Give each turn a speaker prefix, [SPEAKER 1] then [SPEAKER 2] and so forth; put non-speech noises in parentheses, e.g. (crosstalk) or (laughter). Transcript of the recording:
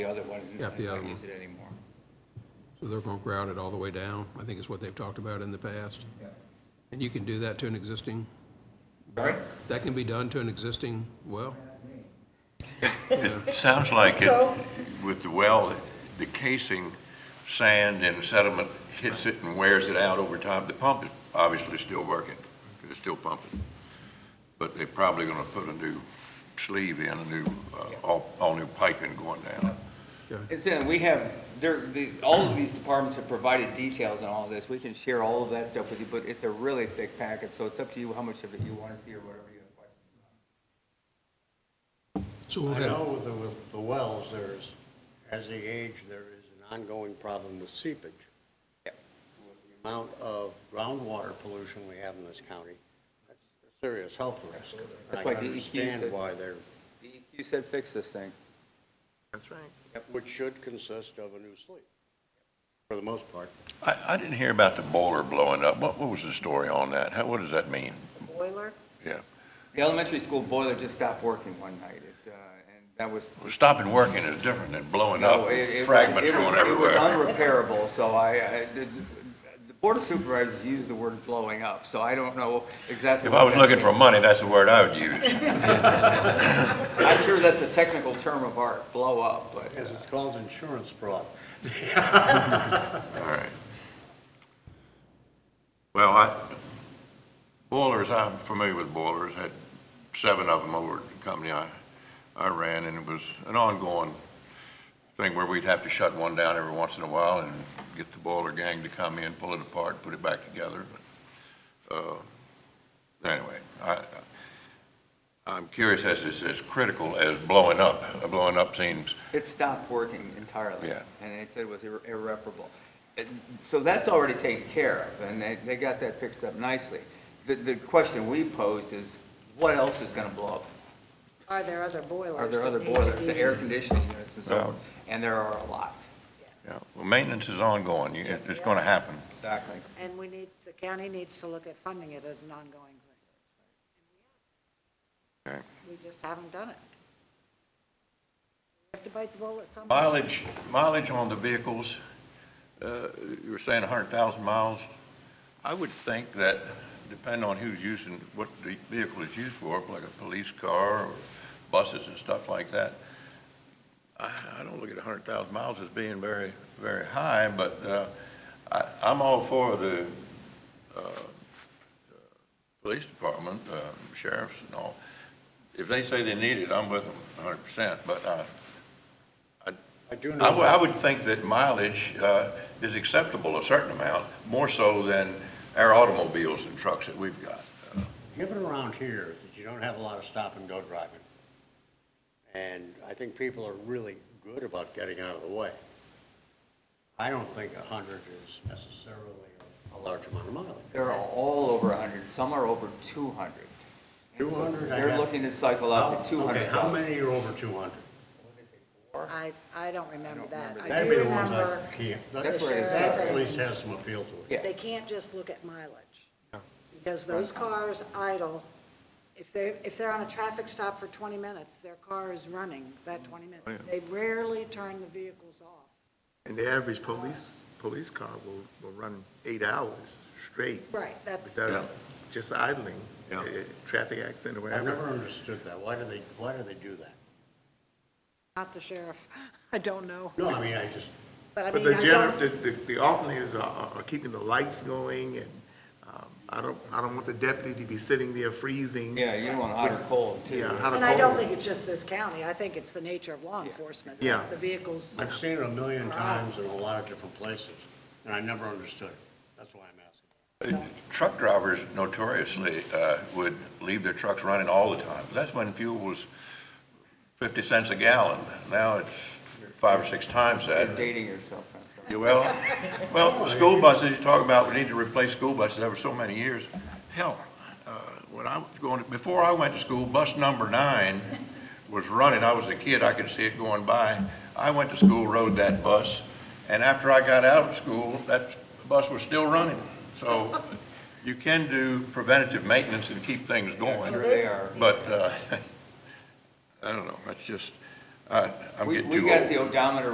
[SPEAKER 1] The other one,
[SPEAKER 2] Yeah,
[SPEAKER 1] I
[SPEAKER 2] the other
[SPEAKER 1] don't
[SPEAKER 2] one.
[SPEAKER 1] use it anymore.
[SPEAKER 2] So they're going to grout it all the way down, I think is what they've talked about in the past.
[SPEAKER 1] Yeah.
[SPEAKER 2] And you can do that to an existing,
[SPEAKER 1] Sorry?
[SPEAKER 2] that can be done to an existing well?
[SPEAKER 3] It sounds like it,
[SPEAKER 4] So-
[SPEAKER 3] with the well, the casing, sand and sediment hits it and wears it out over time. The pump is obviously still working, 'cause it's still pumping. But they're probably gonna put a new sleeve in, a new, uh, all, all new piping going down.
[SPEAKER 1] It's, in- we have, there, the, all of these departments have provided details on all this. We can share all of that stuff with you, but it's a really thick packet, so it's up to you how much of it you want to see or whatever you have.
[SPEAKER 2] So we'll
[SPEAKER 5] I
[SPEAKER 2] have,
[SPEAKER 5] know with the, with the wells, there's, as they age, there is an ongoing problem with seepage.
[SPEAKER 1] Yep.
[SPEAKER 5] The Amount of groundwater pollution we have in this county, that's a serious health risk. And
[SPEAKER 1] That's
[SPEAKER 5] I
[SPEAKER 1] why
[SPEAKER 5] can
[SPEAKER 1] DEQ said-
[SPEAKER 5] understand why they're,
[SPEAKER 1] DEQ said fix this thing.
[SPEAKER 5] which should consist of a new sleeve, for the most part.
[SPEAKER 3] I, I didn't hear about the boiler blowing up. What, what was the story on that? How, what does that mean?
[SPEAKER 4] boiler?
[SPEAKER 3] Yeah.
[SPEAKER 1] The elementary school boiler just stopped working one night, it, uh, and that was.
[SPEAKER 3] Well, Stopping working is different than blowing
[SPEAKER 1] No,
[SPEAKER 3] up,
[SPEAKER 1] it- it was-
[SPEAKER 3] fragments
[SPEAKER 1] it was-
[SPEAKER 3] going
[SPEAKER 1] It was
[SPEAKER 3] everywhere.
[SPEAKER 1] unrepairable, so I, I did, the board of supervisors used the word blowing up, so I don't know exactly.
[SPEAKER 3] If
[SPEAKER 1] what
[SPEAKER 3] I was
[SPEAKER 1] that
[SPEAKER 3] looking
[SPEAKER 1] means.
[SPEAKER 3] for money, that's the word I would use.
[SPEAKER 1] I'm sure that's a technical term of art, blow up, but.
[SPEAKER 5] As it's called, insurance fraud.
[SPEAKER 3] All right. Well, I, boilers, I'm familiar with boilers, had seven of them over at the company I, I ran, and it was an ongoing thing where we'd have to shut one down every once in a while and get the boiler gang to come in, pull it apart, put it back together. But, uh, Anyway, I, I- I'm curious as it's as critical as blowing up. Blowing up seems,
[SPEAKER 1] It stopped working entirely.
[SPEAKER 3] Yeah.
[SPEAKER 1] And they said it was irre- irreparable. And So that's already taken care of, and they, they got that fixed up nicely. The, the question we posed is, what else is gonna blow up?
[SPEAKER 4] Are there other boilers?
[SPEAKER 1] Are there
[SPEAKER 4] that
[SPEAKER 1] other
[SPEAKER 4] need to
[SPEAKER 1] boilers,
[SPEAKER 4] be-
[SPEAKER 1] air conditioning units and so
[SPEAKER 3] Yeah.
[SPEAKER 1] on? And there are a lot.
[SPEAKER 3] you know, well, maintenance is ongoing. You- It's going to happen.
[SPEAKER 1] Exactly.
[SPEAKER 4] And we need, the county needs to look at funding it as an ongoing thing.
[SPEAKER 3] Okay.
[SPEAKER 4] We just haven't done it. We have to bite the bullet somehow.
[SPEAKER 3] Mileage, mileage on the vehicles, uh, you were saying 100,000 miles. I would think that, depending on who's using, what the vehicle is used for, like a police car or buses and stuff like that, I I don't look at 100,000 miles as being very, very high, but uh, I- I'm all for the uh, uh, police department, uh, sheriffs and all. If they say they need it, I'm with them 100%, but I
[SPEAKER 5] I do
[SPEAKER 3] I
[SPEAKER 5] know.
[SPEAKER 3] would, I would think that mileage uh, is acceptable, a certain amount, more so than our automobiles and trucks that we've got.
[SPEAKER 5] given around here that you don't have a lot of stop and go driving. And I think people are really good about getting out of the way. I don't think a hundred is necessarily a large amount of mileage.
[SPEAKER 1] There are all over 100, some are over 200.
[SPEAKER 5] Two hundred, I have.
[SPEAKER 1] They're looking to cycle out to
[SPEAKER 5] Okay, how
[SPEAKER 1] 200,000.
[SPEAKER 5] many are over two hundred?
[SPEAKER 4] I, I don't remember that. I
[SPEAKER 5] That'd
[SPEAKER 4] do
[SPEAKER 5] be the ones I
[SPEAKER 4] remember
[SPEAKER 5] can't. That-
[SPEAKER 1] That's where it's
[SPEAKER 5] that
[SPEAKER 4] at.
[SPEAKER 5] At least has some appeal to
[SPEAKER 1] Yeah.
[SPEAKER 5] it.
[SPEAKER 4] they can't just look at mileage. Because those cars idle, if they're, if they're on a traffic stop for 20 minutes, their car is running that 20
[SPEAKER 5] Oh,
[SPEAKER 4] minutes. They rarely turn the vehicles off.
[SPEAKER 6] And the average police, police car will, will run eight hours straight
[SPEAKER 4] Right, that's,
[SPEAKER 6] without just idling,
[SPEAKER 3] Yeah.
[SPEAKER 6] eh, traffic accident or
[SPEAKER 5] I've never
[SPEAKER 6] whatever.
[SPEAKER 5] understood that. Why do they, why do they do that?
[SPEAKER 4] not the sheriff. (laughs) I don't know.
[SPEAKER 5] No, I mean, I just,
[SPEAKER 4] But I
[SPEAKER 6] But
[SPEAKER 4] mean,
[SPEAKER 6] the
[SPEAKER 4] I
[SPEAKER 6] general,
[SPEAKER 4] don't,
[SPEAKER 6] the, the- the alternators are- are, are keeping the lights going and, um, I don't, I don't want the deputy to be sitting there freezing.
[SPEAKER 1] Yeah, you don't want hot or cold, too.
[SPEAKER 6] Yeah, how to
[SPEAKER 4] and I don't
[SPEAKER 6] call it.
[SPEAKER 4] think it's just this county. I think it's the nature of law enforcement.
[SPEAKER 6] Yeah.
[SPEAKER 4] The vehicles,
[SPEAKER 5] I've seen it a million times in a lot of different places, and I never understood it. That's why I'm asking.
[SPEAKER 3] Uh, Truck drivers notoriously uh, would leave their trucks running all the time. That's when fuel was 50 cents a gallon. Now it's five or six times that.
[SPEAKER 1] You're dating yourself. I'm sorry.
[SPEAKER 3] Yeah, Well, well, school buses, you talk about, we need to replace school buses every so many years. Hell, uh, when I was going, before I went to school, bus number nine was running. I was a kid, I could see it going by. I went to school, rode that bus, and after I got out of school, that bus was still running. So you can do preventative maintenance and keep things going. (laughs)
[SPEAKER 1] Sure they are.
[SPEAKER 3] But, uh, I don't know, that's just, I, I'm
[SPEAKER 1] We,
[SPEAKER 3] getting
[SPEAKER 1] we
[SPEAKER 3] too old.
[SPEAKER 1] got the odometer